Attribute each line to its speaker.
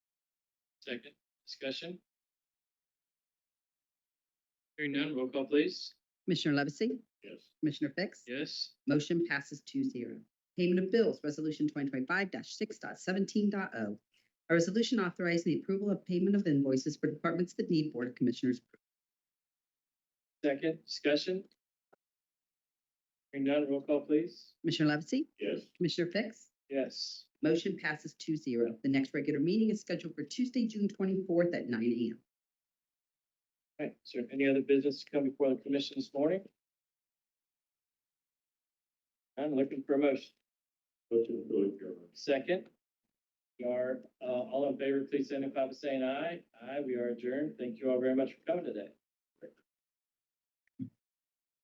Speaker 1: Second, discussion? Hearing none, roll call please.
Speaker 2: Commissioner Levesey?
Speaker 1: Yes.
Speaker 2: Commissioner Fix?
Speaker 1: Yes,
Speaker 2: Motion passes 2-0. Payment of bills, resolution twenty twenty-five 617o oh. A resolution authorizing the approval of payment of invoices for departments that need Board of Commissioners.
Speaker 1: second, discussion? Hearing none, roll call please.
Speaker 2: Commissioner Levesey?
Speaker 1: Yes.
Speaker 2: Commissioner Fix?
Speaker 1: Yes,
Speaker 2: Motion passes 2-0. The next regular meeting is scheduled for Tuesday, June twenty-fourth at nine AM.
Speaker 1: All right, is there any other business to come before the commission this morning? I'm looking for a motion. Motion to Second. We are, uh, all in favor, please signify by saying aye. Aye, we are adjourned. Thank you all very much for coming today.